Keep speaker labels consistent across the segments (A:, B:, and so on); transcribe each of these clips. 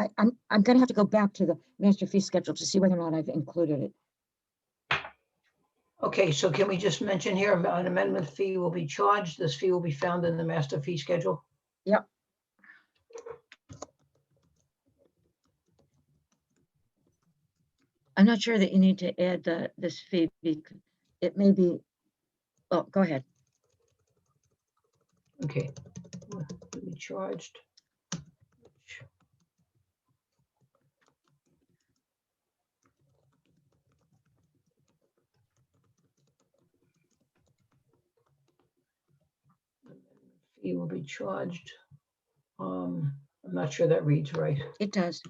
A: I, I'm, I'm gonna have to go back to the master fee schedule to see whether or not I've included it.
B: Okay, so can we just mention here, an amendment fee will be charged. This fee will be found in the master fee schedule.
A: Yep. I'm not sure that you need to add the, this fee, bec- it may be, oh, go ahead.
B: Okay. Will Be charged. Fee will be charged. Um, I'm not sure that reads right.
A: It does.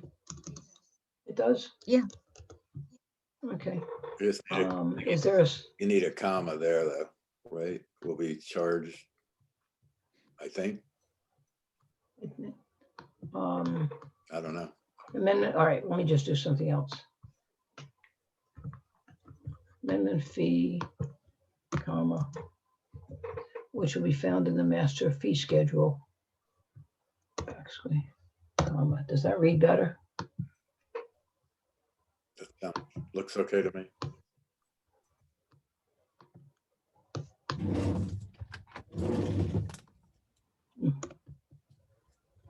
B: It does?
A: Yeah.
B: Okay,
C: You just need a-
B: um, is there a, s-
C: you need a comma there, though, right? Will be charged, I think.
B: um,
C: I don't know.
B: Amendment, all right, let me just do something else. Amendment fee, comma, which will be found in the master fee schedule. Actually, comma, does that read better?
C: Just, um, Looks okay to me.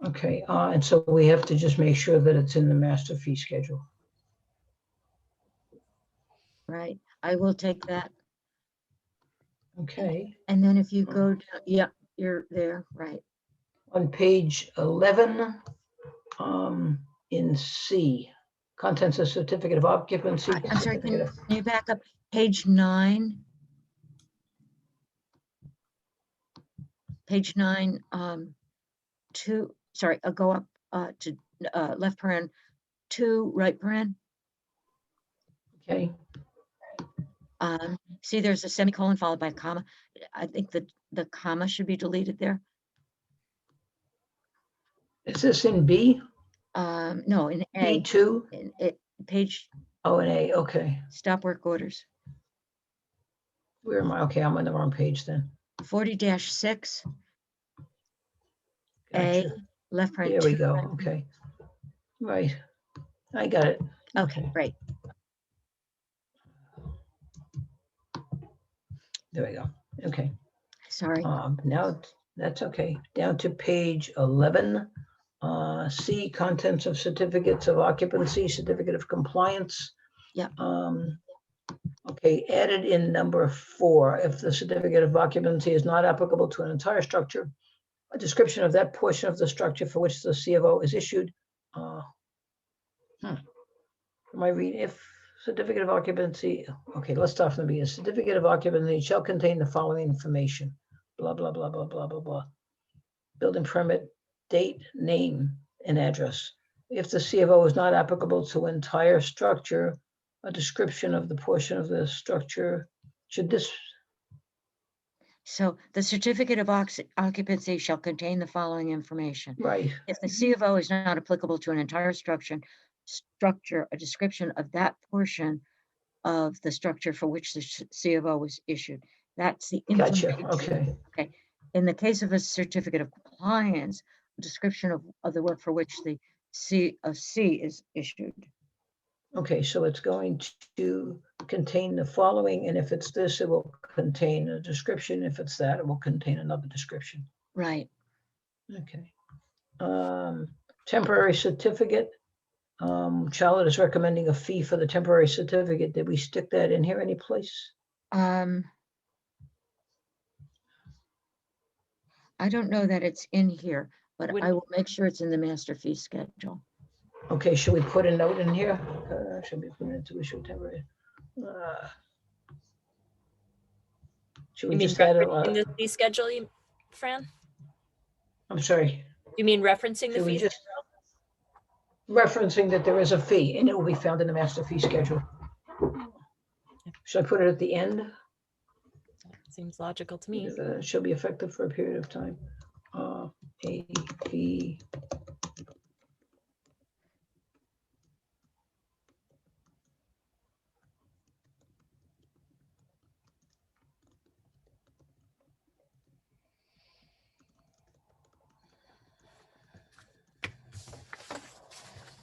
B: Okay, uh, and so we have to just make sure that it's in the master fee schedule.
A: Right, I will take that.
B: Okay,
A: And then if you go, to yeah, you're there, right.
B: on page eleven, um, in C, contents of certificate of occupancy.
A: I- I'm sorry, can
B: certificate
A: you-
B: of-
A: can you back up? Page nine. Page nine, um, two, sorry, I'll go up, uh, to, uh, left paren, two, right paren.
B: Okay, Mm-hmm.
A: Um, see, there's a semicolon followed by a comma. I think the, the comma should be deleted there.
B: is this in B?
A: Um, no, in A,
B: B2?
A: in it, page,
B: Oh, and A, okay.
A: stop work orders,
B: Where am I? Okay, I'm on the wrong page then.
A: forty six, A,
B: Gotcha.
A: left paren.
B: There we
A: two,
B: go,
A: right paren.
B: okay. Right, I got it.
A: Okay,
B: Okay.
A: great.
B: There we go, okay.
A: Sorry.
B: Um, Now, it's- that's okay. Down to page 11. uh, C, contents of certificates of occupancy, certificate of compliance.
A: Yep.
B: Um, Okay, added in number four, if the certificate of occupancy is not applicable to an entire structure, a description of that portion of the structure for which the CFO is issued. uh, hmm. Am I reading, if certificate of occupancy, okay, let's start from the beginning. Certificate of occupancy shall contain the following information blah, blah, blah, blah, blah, blah, blah. Building permit, date, name, and address. If the CFO is not applicable to entire structure, a description of the portion of the structure, should this,
A: So the certificate of ox- occupancy shall contain the following information.
B: right,
A: If the C of O is not applicable to an entire structure, structure, a description of that portion of the structure for which the sh- C of O was issued. That's the.
B: gotcha,
A: information.
B: okay,
A: In the case of a certificate of compliance, a description of, of the work for which the C of C is issued.
B: okay, so it's going to contain the following, and if it's this, it will contain a description, if it's that, it will contain another description.
A: Right.
B: Okay. Um, temporary certificate. Um, Charlotte is recommending a fee for the temporary certificate. Did we stick that in here anyplace?
A: Um. I don't know that it's in here, but I
D: Wouldn't-
A: will make sure it's in the master fee schedule.
B: Okay, should we put a note in here? Uh, should be permitted to issue temporary. uh, Should
D: You
B: we
D: mean
B: just add a,
D: referencing
B: uh,
D: the fee schedule, you- Fran?
B: I'm sorry,
D: You mean referencing the
B: should we
D: fee?
B: just? Referencing that there is a fee and it will be found in the master fee schedule. Should I put it at the end?
D: schedule? Seems logical to me.
B: Uh, shall be effective for a period of time. Uh, A fee